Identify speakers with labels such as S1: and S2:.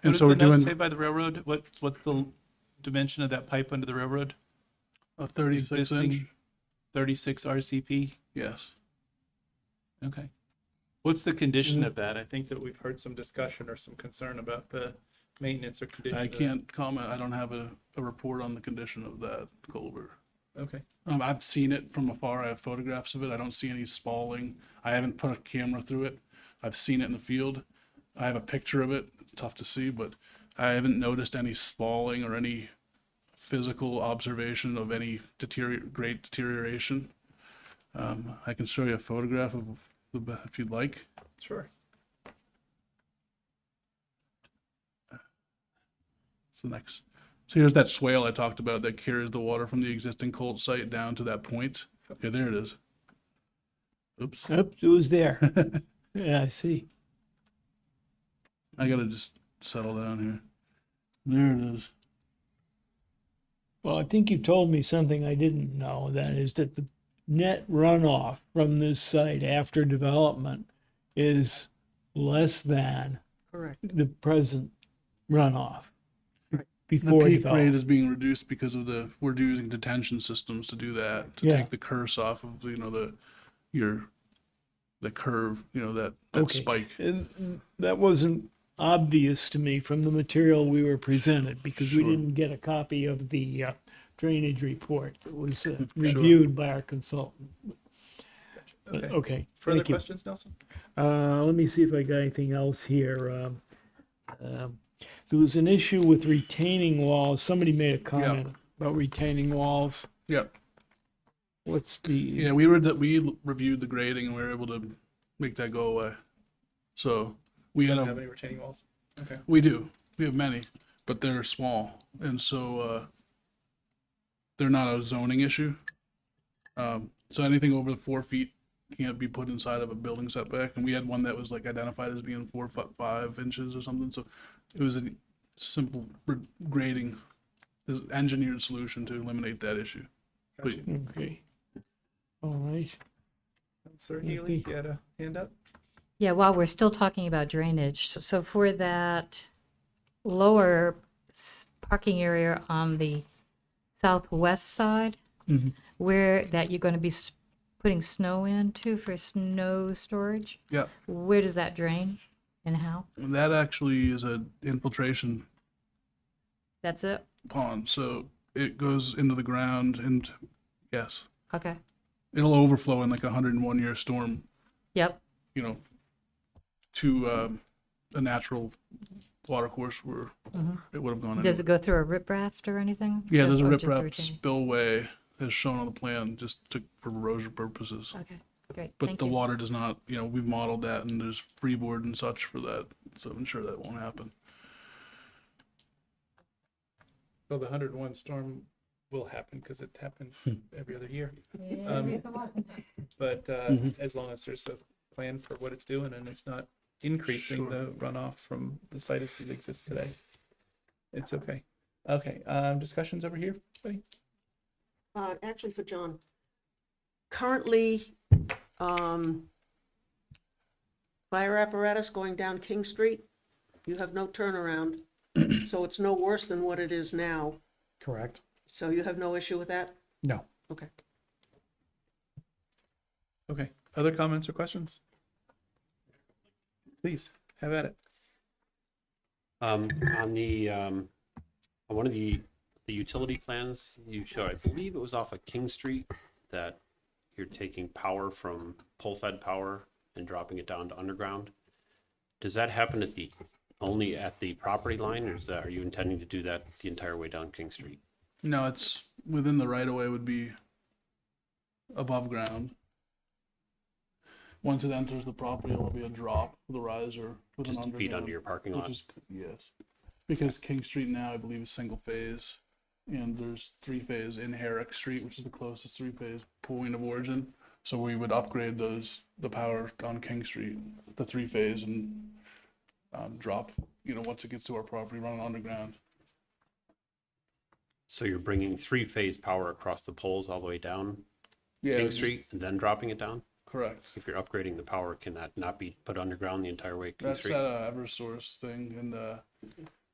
S1: What
S2: And
S1: does
S2: so
S1: the
S2: we're
S1: note
S2: doing
S1: say by the railroad? What, what's the dimension of that pipe under the railroad?
S2: a 36 inch,
S1: Existing. 36 RCP?
S2: yes.
S1: Okay. What's the condition of that? I think that we've heard some discussion or some concern about the maintenance or condition.
S2: I
S1: of that.
S2: can't comment, I don't have a, a report on the condition of that culvert.
S1: Okay.
S2: Um, I've seen it from afar. I have photographs of it. I don't see any spalling. I haven't put a camera through it. I've seen it in the field. I have a picture of it. It's tough to see, but I haven't noticed any spalling or any physical observation of any deterior- great deterioration. Um, I can show you a photograph of the b- if you'd like.
S1: Sure.
S2: So next, so here's that swale I talked about that carries the water from the existing cult site down to that point. Okay, there it is. Oops.
S3: Oops, it was there. Yeah, I see.
S2: I gotta just settle down here. There it is.
S3: Well, I think you told me something I didn't know, that is that the net runoff from this site after development is less than
S1: Correct.
S3: the present runoff
S2: The
S3: before
S2: peak rate
S3: development.
S2: is being reduced because of the we're using detention systems to do that to
S3: Yeah.
S2: take the curse off of you know the your the curve you know that that
S3: Okay.
S2: spike.
S3: And that wasn't obvious to me from the material we were presented, because we
S2: Sure.
S3: didn't get a copy of the uh, drainage report that was uh, reviewed by our consultant. But,
S1: Okay.
S3: Okay.
S1: Further
S3: Uh, oh, thank you.
S1: questions, Nelson?
S3: Uh, let me see if I got anything else here. Um, um, There was an issue with retaining walls. Somebody made a comment about retaining walls.
S2: Yeah,
S3: What's the,
S2: yeah. We were that we reviewed the grading and we were able to make that go away. So we had
S1: Do
S2: a
S1: you have any retaining walls? Okay.
S2: We do. We have many, but they're small, and so uh, they're not a zoning issue. Um, so anything over the four feet can't be put inside of a building setback. And we had one that was like identified as being four foot five inches or something. So it was a simple re- grading, this engineered solution to eliminate that issue. But
S1: Gotcha.
S3: okay. All right.
S1: Sir Healy, you had a hand up?
S4: Yeah, while we're still talking about drainage, s- so for that lower s- parking area on the southwest side,
S2: Mhm.
S4: where that you're going to be s- putting snow into for snow storage,
S2: yeah,
S4: where does that drain and how?
S2: that actually is a infiltration
S4: That's it?
S2: pond. So it goes into the ground, and yes,
S4: Okay,
S2: it'll overflow in like a 101 year storm
S4: yep,
S2: you know to um, a natural water course where
S4: Mm-hmm.
S2: it would have gone anyway.
S4: does it go through a riprap or anything?
S2: yeah there's a
S4: Or just
S2: riprap
S4: retaining?
S2: spillway as shown on the plan just to, for erosion purposes
S4: Okay, great,
S2: but
S4: thank
S2: the
S4: you.
S2: water does not you know we've modeled that and there's freeboard and such for that so i'm sure that won't happen
S1: Well, the 101 storm will happen because it happens every other year.
S4: Yeah,
S1: um,
S4: raise the water.
S1: But uh, as long as there's a plan for what it's doing and it's not increasing
S2: Sure.
S1: the runoff from the site as it exists today, it's okay. Okay, um, discussions over here, buddy?
S5: Uh, actually for John. Currently, um, fire apparatus going down King Street, you have no turnaround, so it's no worse than what it is now.
S6: Correct.
S5: So you have no issue with that?
S6: No.
S5: Okay.
S1: Okay, other comments or questions? Please, have at it.
S7: Um, on the, um, on one of the, the utility plans you showed, I believe it was off of King Street that you're taking power from pole fed power and dropping it down to underground. Does that happen at the, only at the property line or is that, are you intending to do that the entire way down King Street?
S2: no it's within the right of way would be above ground once it enters the property it will be a drop with a riser with an
S7: Just to
S2: underground.
S7: feed under your parking
S2: Which
S7: lot?
S2: is, yes, because King Street now, I believe, is single phase, and there's three phase in Herrick Street, which is the closest three phase point of origin. So we would upgrade those the power on King Street, the three phase, and um, drop. You know, once it gets to our property, run it underground.
S7: So you're bringing three phase power across the poles all the way down
S2: Yeah,
S7: King
S2: just-
S7: Street and then dropping it down?
S2: Correct.
S7: If you're upgrading the power, can that not be put underground the entire way King
S2: That's
S7: Street?
S2: that uh, EverSource thing, and uh,